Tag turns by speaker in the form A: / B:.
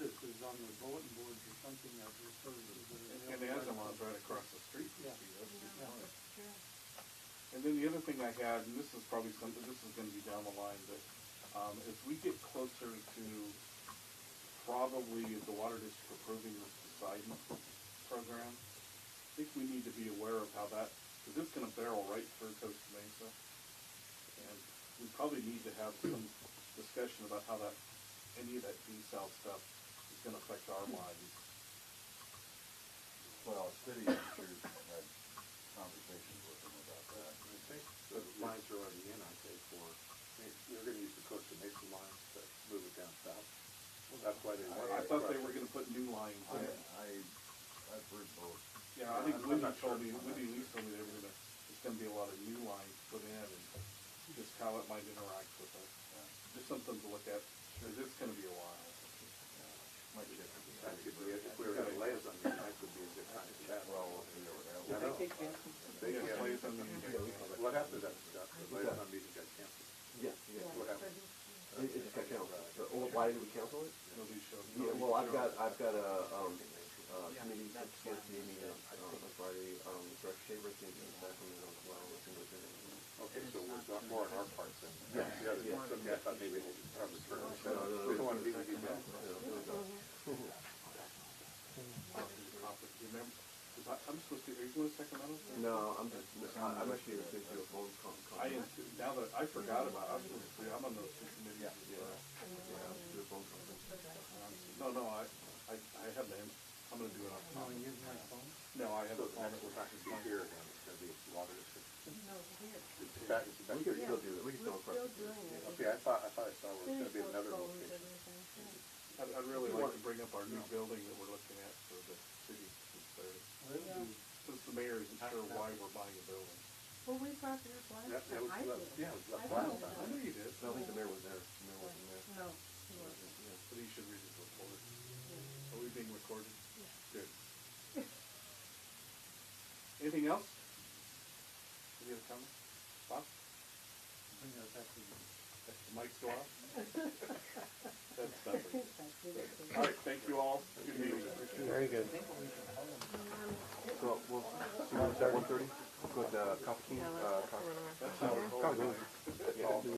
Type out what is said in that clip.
A: or bulletin boards or something that refers to the.
B: And the other one's right across the street from
A: Yeah.
B: you, that's the
A: Yeah.
B: point. And then the other thing I had, and this is probably something, this is gonna be down the line, but, um, as we get closer to probably the water district approving the Poseidon program, I think we need to be aware of how that, cause it's gonna barrel right through Costa Mesa. And we probably need to have some discussion about how that, any of that desal stuff is gonna affect our lives.
C: Well, city managers had conversations with them about that.
D: I think the lines are already in, I think, for, they're gonna use the Costa Mesa lines to move it down south. That's why they want.
B: I thought they were gonna put new lines
C: I,
B: in.
C: I, I've heard both.
B: Yeah, I think
C: I'm
B: Wendy
C: not
B: told
C: sure.
B: me, Wendy Lee told me they were gonna, there's gonna be a lot of new lines put in and just how it might interact with us.
C: Yeah,
B: Just something to look at, 'cause it's gonna be a while.
C: yeah. My ship would be-
D: That could be, if we were gonna lay us on there, that could be a good time to chat.
C: Well, we'll see or whatever.
D: I know. They
B: Yeah,
D: can't-
B: plays on the agenda.
D: What happened to that stuff? The liaison meeting got canceled.
E: Yeah,
D: What happened?
E: it, it just got canceled. But, well, why did we cancel it?
B: Nobody showed.
E: Yeah,
B: nobody
E: well, I've
B: showed
E: got,
B: up.
E: I've got a, um, uh, committee that's supposed to be meeting uh, on, on Friday, um, with Rex Shaver, I think, in Sacramento as well, with him within it.
D: Okay, so we're not more on our part than
E: Yeah,
D: the others.
E: yeah.
D: Okay, I thought maybe they should have a turn.
E: No, no, no,
D: We don't wanna be with you
E: no,
D: guys.
E: no, no, no.
B: You remember, 'Cause I, I'm supposed to, are you going to Sacramento?
E: No, I'm just, I- I'm actually gonna do a phone con- con-
B: I am, too. now that, I forgot about, it. I was supposed to, I'm on those two committees.
E: Yeah, yeah, I'm gonna do a phone conference.
B: No, no, I, I, I have them, I'm gonna do it on
A: Oh,
B: time.
A: you have my phone?
B: No, I have a
D: So the
B: phone.
D: next one's not gonna be here, then it's gonna be water district. It's back, it's back
E: We
D: here.
E: could still do it, we could still.
F: We're still doing it.
D: Okay, I thought, I thought I saw where it's gonna be another location.
B: I'd, I'd really like to bring up our new building that we're looking at for the city, since they're, since the mayor isn't sure why we're buying a building.
F: Well, we brought it up last
D: That, that
F: time, I
D: was left,
F: did.
D: yeah, it was
F: I
D: left last
F: thought
D: time.
B: I know you did,
E: I don't think the mayor was there, the mayor wasn't there.
F: No, he wasn't.
E: Yeah.
B: but he should read his report. Are we being recorded? Good. Anything else? Any other comments? Bob?
A: Bring that back to you.
B: Mike's go off? That's nothing.
F: That's it, it's a-
D: Uh,
B: All right, thank you all. Good meeting.
E: Very good.
D: uh,
E: So, we'll, so we'll start one thirty, with, uh, coffee, king, uh, coffee.
B: That's how we're
E: Coffee.
B: holding.
E: Yeah.